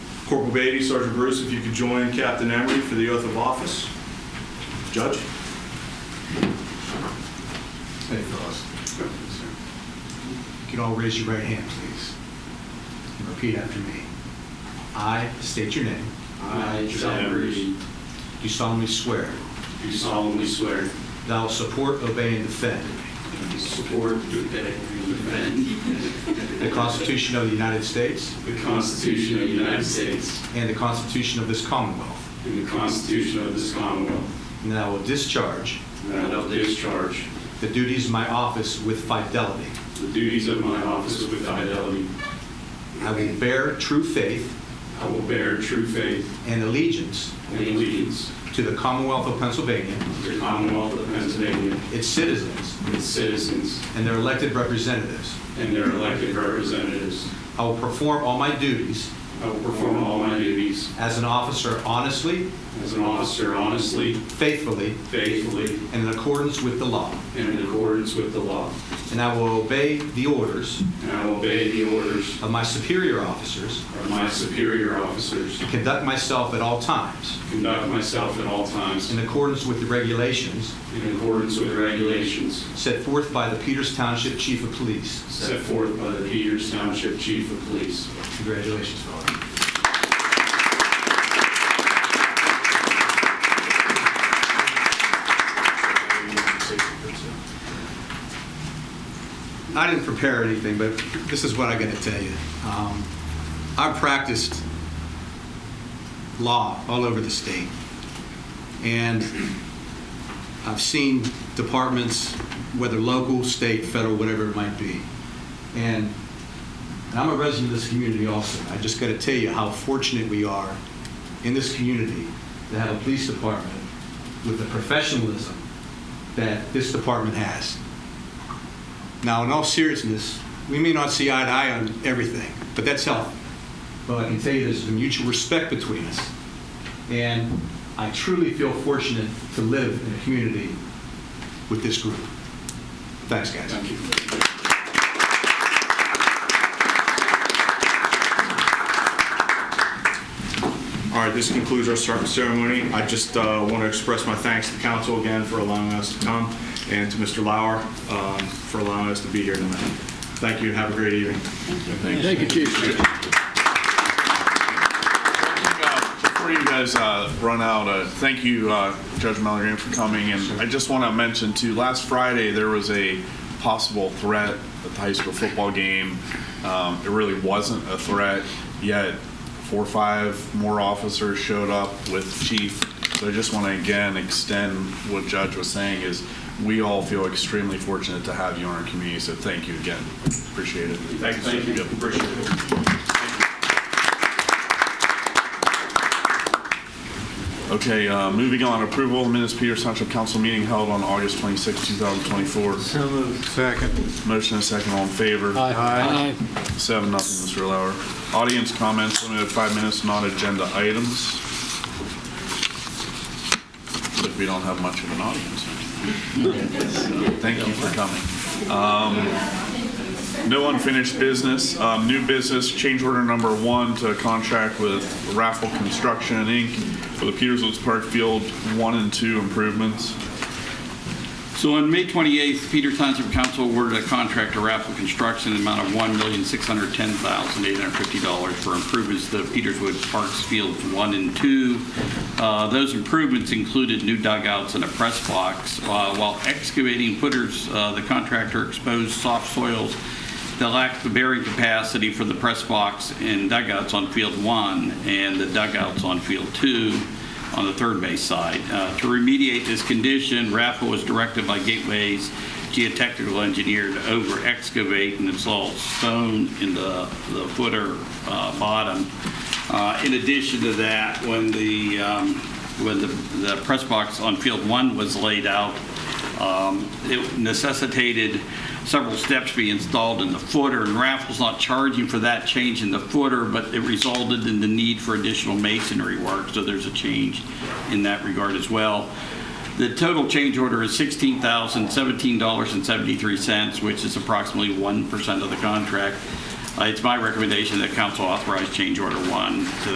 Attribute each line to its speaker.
Speaker 1: Corporal Beatty, Sergeant Bruce, if you could join Captain Emery for the oath of office. Judge?
Speaker 2: Hey, fellas. You can all raise your right hand, please. And repeat after me. I state your name.
Speaker 3: I, John Reed,
Speaker 2: Do solemnly swear
Speaker 3: do solemnly swear
Speaker 2: that I will support, obey, and defend
Speaker 3: to support, defend, and defend
Speaker 2: the Constitution of the United States
Speaker 3: the Constitution of the United States
Speaker 2: and the Constitution of this Commonwealth,
Speaker 3: and the Constitution of this Commonwealth,
Speaker 2: and that I will discharge
Speaker 3: and that I will discharge
Speaker 2: the duties of my office with fidelity.
Speaker 3: the duties of my office with fidelity.
Speaker 2: I will bear true faith
Speaker 3: I will bear true faith
Speaker 2: and allegiance
Speaker 3: and allegiance
Speaker 2: to the Commonwealth of Pennsylvania,
Speaker 3: to the Commonwealth of Pennsylvania,
Speaker 2: its citizens,
Speaker 3: its citizens,
Speaker 2: and their elected representatives.
Speaker 3: and their elected representatives.
Speaker 2: I will perform all my duties
Speaker 3: I will perform all my duties
Speaker 2: As an officer honestly,
Speaker 3: as an officer honestly,
Speaker 2: faithfully,
Speaker 3: faithfully,
Speaker 2: and in accordance with the law.
Speaker 3: and in accordance with the law.
Speaker 2: And I will obey the orders
Speaker 3: And I will obey the orders
Speaker 2: of my superior officers,
Speaker 3: of my superior officers,
Speaker 2: conduct myself at all times
Speaker 3: conduct myself at all times
Speaker 2: in accordance with the regulations
Speaker 3: in accordance with regulations
Speaker 2: set forth by the Peters Township Chief of Police.
Speaker 3: set forth by the Peters Township Chief of Police.
Speaker 2: Congratulations, fellow. I didn't prepare anything, but this is what I got to tell you. Um, I practiced law all over the state, and I've seen departments, whether local, state, federal, whatever it might be. And, and I'm a resident of this community also. I just got to tell you how fortunate we are in this community to have a police department with the professionalism that this department has. Now, in all seriousness, we may not see eye to eye on everything, but that's healthy. But I can tell you there's a mutual respect between us. And I truly feel fortunate to live in a community with this group. Thanks, guys.
Speaker 3: Thank you.
Speaker 1: All right, this concludes our cer- ceremony. I just want to express my thanks to council again for allowing us to come, and to Mr. Lauer um, for allowing us to be here tonight. Thank you, and have a great evening.
Speaker 4: Thank you, Chief.
Speaker 5: Before you guys uh, run out, uh, thank you, uh, Judge Mallory, for coming. And I just want to mention too, last Friday, there was a possible threat at the high school football game. Um, It really wasn't a threat, yet four or five more officers showed up with chief. So I just want to again extend what Judge was saying is, we all feel extremely fortunate to have you in our community, so thank you again. Appreciate it.
Speaker 1: Thank you. Appreciate it.
Speaker 5: Okay, uh, moving on, approval of minutes Peters Township Council meeting held on August 26, 2024.
Speaker 4: So moved. Second.
Speaker 5: Motion and second, all in favor?
Speaker 4: Aye.
Speaker 5: Seven, nothing, Mr. Lauer. Audience comments, limited to five minutes, non-agenda items. But we don't have much of an audience. Thank you for coming. No unfinished business. Um, New business, change order number one to contract with Raffle Construction Inc. for the Peters Woods Park Field 1 and 2 improvements.
Speaker 6: So on May 28th, Peter Township Council awarded a contract to Raffle Construction in the amount of $1,610,850 for improvements to Peterswood Parks Fields 1 and 2. Uh, Those improvements included new dugouts and a press box. Uh, While excavating footers, uh, the contractor exposed soft soils that lacked the bearing capacity for the press box and dugouts on Field 1 and the dugouts on Field 2 on the third base side. Uh, To remediate this condition, RAFA was directed by Gateway's geotechnical engineer to over-excavate and install stone in the the footer uh, bottom. Uh, In addition to that, when the, um, when the the press box on field one was laid out, um, It necessitated several steps be installed in the footer, and Raffles not charging for that change in the footer, but it resulted in the need for additional masonry work, so there's a change in that regard as well. The total change order is $16,017.73, which is approximately 1% of the contract. Uh, It's my recommendation that council authorize change order one to